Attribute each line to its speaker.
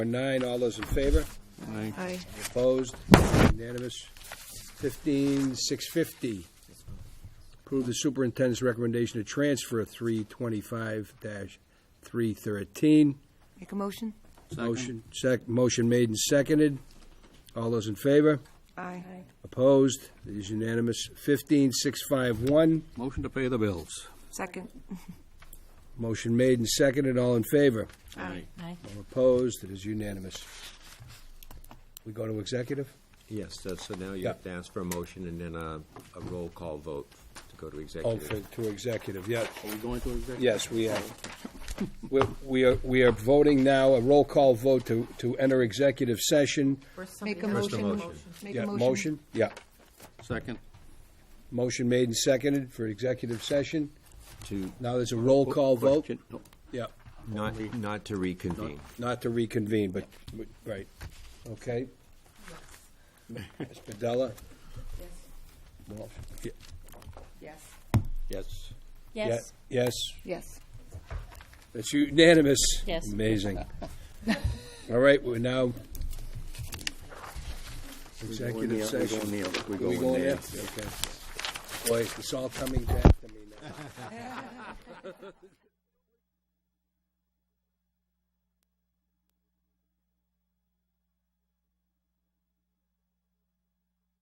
Speaker 1: Nine, all those in favor?
Speaker 2: Aye.
Speaker 1: Opposed? Unanimous. Fifteen, six fifty. Approve the superintendent's recommendation to transfer three twenty-five three thirteen.
Speaker 2: Make a motion?
Speaker 1: Motion, sec, motion made and seconded. All those in favor?
Speaker 2: Aye.
Speaker 1: Opposed? It is unanimous. Fifteen, six five one.
Speaker 3: Motion to pay the bills.
Speaker 2: Second?
Speaker 1: Motion made and seconded. All in favor?
Speaker 2: Aye.
Speaker 1: All opposed? It is unanimous. We go to executive?
Speaker 4: Yes, so- so now you have to ask for a motion and then a a roll call vote to go to
Speaker 1: Oh,
Speaker 4: executive.
Speaker 1: for, to executive, yeah.
Speaker 3: Are we going to executive?
Speaker 1: Yes, we are. We're- We are, we are voting now, a roll call vote to, to enter executive session.
Speaker 2: Make a
Speaker 4: First a
Speaker 2: motion.
Speaker 4: motion.
Speaker 2: Make
Speaker 1: Yeah,
Speaker 2: a
Speaker 1: Motion, yeah.
Speaker 3: Second.
Speaker 1: Motion made and seconded for executive session.
Speaker 3: To.
Speaker 1: Now there's a roll call vote.
Speaker 3: Question- no,
Speaker 1: Yeah,
Speaker 4: Not, not to reconvene.
Speaker 1: not to reconvene, but, right, okay. Ms. Padella? Walsh? Yeah,
Speaker 2: Yes.
Speaker 3: Yes.
Speaker 5: Yes.
Speaker 1: yeah, Yes,
Speaker 2: Yes.
Speaker 1: it's unanimous.
Speaker 5: Yes.
Speaker 1: Amazing. All right, we're now. Executive session.
Speaker 3: We
Speaker 1: Are we
Speaker 3: go in
Speaker 1: going
Speaker 3: there.
Speaker 1: in? Okay. Boy, it's all coming back to me now.